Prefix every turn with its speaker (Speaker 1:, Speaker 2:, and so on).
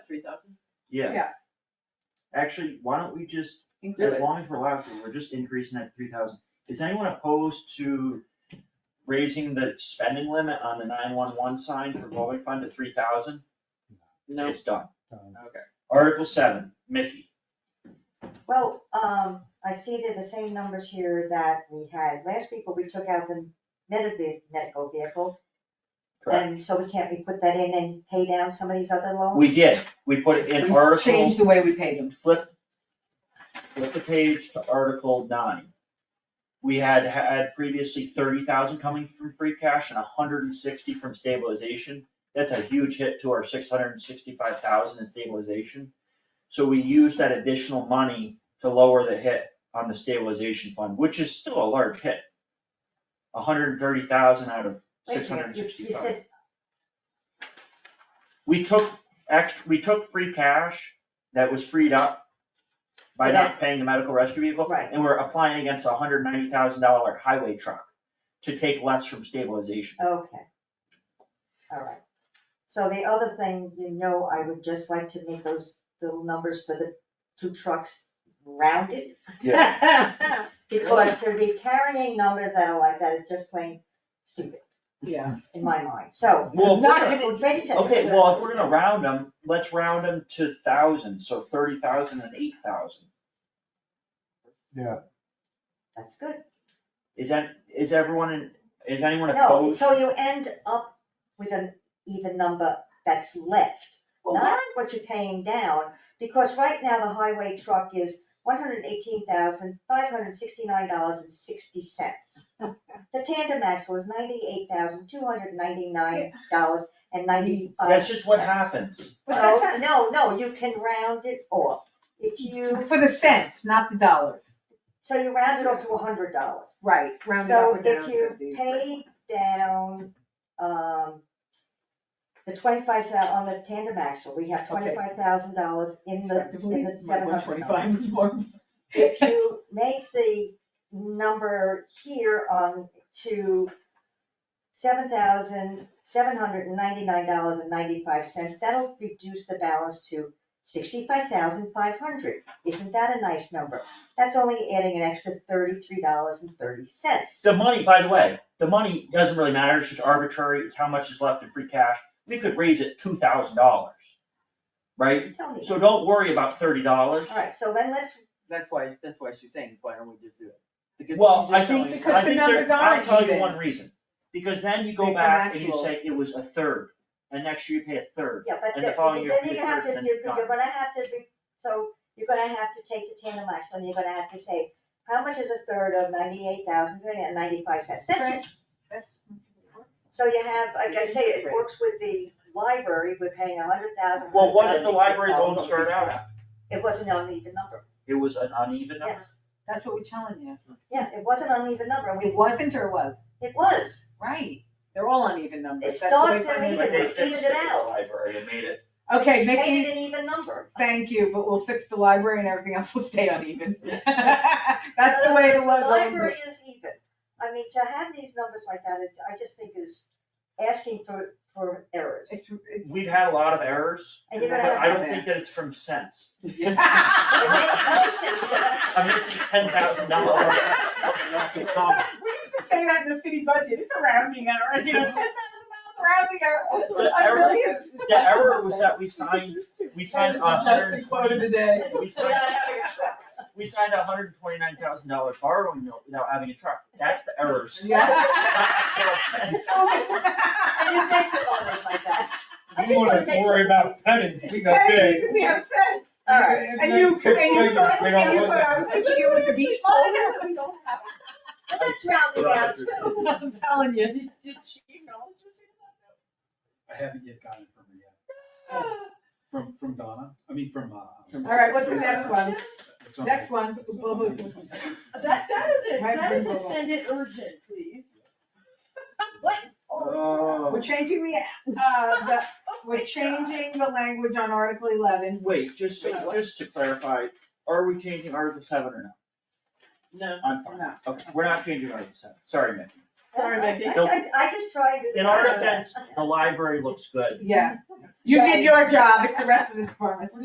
Speaker 1: three thousand?
Speaker 2: Yeah,
Speaker 3: Yeah,
Speaker 2: actually, why don't we just,
Speaker 3: include
Speaker 2: as
Speaker 3: it.
Speaker 2: long as we're allowed to, we're just increasing that three thousand. Is anyone opposed to raising the spending limit on the nine-one-one sign for revolving fund to three thousand?
Speaker 1: No,
Speaker 2: It's done.
Speaker 1: okay.
Speaker 2: Article seven, Mickey,
Speaker 4: Well, um, I see that the same numbers here that we had last week, but we took out the net of the medical vehicle.
Speaker 2: correct?
Speaker 4: And so we can't, we put that in and pay down some of these other loans?
Speaker 2: We did, we put it in
Speaker 3: We
Speaker 2: article,
Speaker 3: Change the way we pay them.
Speaker 2: flip, flip the page to article nine. We had had previously thirty thousand coming from free cash and hundred and sixty from stabilization. That's a huge hit to our six hundred and sixty-five thousand in stabilization. So we used that additional money to lower the hit on the stabilization fund, which is still a large hit. hundred and thirty thousand out of
Speaker 4: Wait a
Speaker 2: six hundred
Speaker 4: second,
Speaker 2: and
Speaker 4: you-
Speaker 2: sixty-five.
Speaker 4: You said,
Speaker 2: We took extra, we took free cash that was freed up by not paying the medical rescue vehicle.
Speaker 4: Right.
Speaker 2: And we're applying against a hundred ninety thousand dollar highway truck to take less from stabilization.
Speaker 4: okay. All right. So the other thing, you know, I would just like to make those little numbers for the two trucks rounded. Because to be carrying numbers that are like that is just plain stupid
Speaker 3: Yeah.
Speaker 4: in my mind, so.
Speaker 2: Well, if we're
Speaker 3: Not
Speaker 2: gonna-
Speaker 3: gonna-
Speaker 4: Wait a second.
Speaker 2: okay, well, if we're gonna round them, let's round them to thousands, so thirty thousand and eight thousand.
Speaker 4: That's good.
Speaker 2: Is that, is everyone in, is anyone
Speaker 4: No,
Speaker 2: opposed?
Speaker 4: so you end up with an even number that's left, not what you're paying down, because right now the highway truck is one hundred eighteen thousand, five hundred sixty-nine dollars and sixty cents. The tandem axle is ninety-eight thousand, two hundred ninety-nine dollars and ninety-five
Speaker 2: That's just what happens.
Speaker 3: But that's
Speaker 4: No, no, no, you can round it off, if you,
Speaker 3: For the cents, not the dollars.
Speaker 4: so you round it off to hundred dollars.
Speaker 3: Right, round it up or down.
Speaker 4: So if you pay down, um, the twenty-five thou, on the tandem axle, we have
Speaker 3: Okay.
Speaker 4: twenty-five thousand dollars in the, in the seven hundred dollars.
Speaker 3: Twenty-five more.
Speaker 4: If you make the number here on to seven thousand, seven hundred and ninety-nine dollars and ninety-five cents, that'll reduce the balance to sixty-five thousand, five hundred. Isn't that a nice number? That's only adding an extra thirty-three dollars and thirty cents.
Speaker 2: The money, by the way, the money doesn't really matter, it's just arbitrary, it's how much is left in free cash, we could raise it two thousand dollars. Right?
Speaker 4: Tell me.
Speaker 2: So don't worry about thirty dollars.
Speaker 4: Alright, so then let's,
Speaker 1: That's why, that's why she's saying, why don't we just do it? Because
Speaker 2: Well,
Speaker 1: she's
Speaker 2: I
Speaker 1: just
Speaker 2: think,
Speaker 1: showing-
Speaker 3: because
Speaker 2: I
Speaker 3: the
Speaker 2: think there,
Speaker 3: numbers
Speaker 2: I'll
Speaker 3: aren't
Speaker 2: tell you
Speaker 3: even.
Speaker 2: one reason, because then you go
Speaker 3: Based on
Speaker 2: back and you
Speaker 3: actuals.
Speaker 2: say it was a third, and next year you pay a third.
Speaker 4: yeah, but
Speaker 2: And the
Speaker 4: then
Speaker 2: following year
Speaker 4: then
Speaker 2: for
Speaker 4: you
Speaker 2: the
Speaker 4: have to,
Speaker 2: third, then
Speaker 4: you're, you're
Speaker 2: done.
Speaker 4: gonna have to, be- so you're gonna have to take the tandem axle and you're gonna have to say, how much is a third of ninety-eight thousand three hundred and ninety-five cents? That's
Speaker 3: Right.
Speaker 4: just, so you have, like I say, it works with the library, we're paying a hundred thousand.
Speaker 2: Well, what if the library loan started out at?
Speaker 4: It wasn't an uneven number,
Speaker 2: It was an uneven number.
Speaker 4: yes,
Speaker 3: That's what we're telling you.
Speaker 4: yeah, it was an uneven number, and
Speaker 3: It
Speaker 4: we,
Speaker 3: wasn't or was?
Speaker 4: it was,
Speaker 3: Right. They're all uneven numbers.
Speaker 4: It
Speaker 3: That's the way
Speaker 4: starts
Speaker 3: from
Speaker 4: at
Speaker 3: the-
Speaker 4: even.
Speaker 2: But they
Speaker 4: Evened it
Speaker 2: fixed it at the
Speaker 4: out.
Speaker 2: Library and made it,
Speaker 3: Okay,
Speaker 4: made
Speaker 3: Mickey,
Speaker 4: it an even number.
Speaker 3: thank you, but we'll fix the library and everything else will stay uneven. That's the way the
Speaker 4: The
Speaker 3: library.
Speaker 4: library is even. I mean, to have these numbers like that, it- I just think is asking for, for errors.
Speaker 2: we've had a lot of errors,
Speaker 4: And you're
Speaker 2: but
Speaker 4: gonna have.
Speaker 2: I don't think that it's from cents.
Speaker 4: It makes no sense to have-
Speaker 2: I'm missing ten thousand dollars.
Speaker 3: We used to say that in the city budget, it's a rounding error, you know, ten thousand miles rounding error.
Speaker 2: Also,
Speaker 3: It
Speaker 2: the error-
Speaker 3: really is.
Speaker 2: The error was that we signed, we signed a hundred and
Speaker 3: That's the quote of
Speaker 2: twenty,
Speaker 3: the day.
Speaker 2: we signed, we signed a hundred and twenty-nine thousand dollar borrowing note without having a truck, that's the errors. Uh,
Speaker 4: And you fix it always like that. I
Speaker 5: You
Speaker 4: just
Speaker 5: wanna
Speaker 4: wanna fix
Speaker 5: worry
Speaker 4: it.
Speaker 5: about pennies, we got
Speaker 3: Hey, you
Speaker 5: big.
Speaker 3: can be upset.
Speaker 4: All right.
Speaker 3: And you, and you, and you,
Speaker 5: We don't want
Speaker 3: I was
Speaker 5: that.
Speaker 3: thinking you were the beach ball. We don't have
Speaker 4: But that's rounding out too.
Speaker 3: I'm telling you, did, did she acknowledge you
Speaker 5: I haven't yet gotten it from her yet,
Speaker 3: said
Speaker 5: from, from Donna, I mean, from, uh.
Speaker 3: All right, what's the next
Speaker 5: Sarah.
Speaker 3: one?
Speaker 5: It's
Speaker 3: that?
Speaker 5: on-
Speaker 3: Next one.
Speaker 5: it's on-
Speaker 1: That, that is it,
Speaker 3: Might
Speaker 1: that
Speaker 3: be
Speaker 1: is
Speaker 3: a
Speaker 1: it,
Speaker 3: little-
Speaker 1: send it urgent, please.
Speaker 2: Oh.
Speaker 3: We're changing the, uh, the, we're changing the language on Article eleven.
Speaker 2: Wait, just, so- just to clarify, are we changing Article seven or not?
Speaker 1: No.
Speaker 2: Oh, I'm fine, okay, we're not changing Article seven, sorry, Mickey.
Speaker 3: Sorry, Becky.
Speaker 4: I- I- I just tried to.
Speaker 2: In our defense, the library looks good.
Speaker 3: Yeah. You did your job, it's the rest of the department.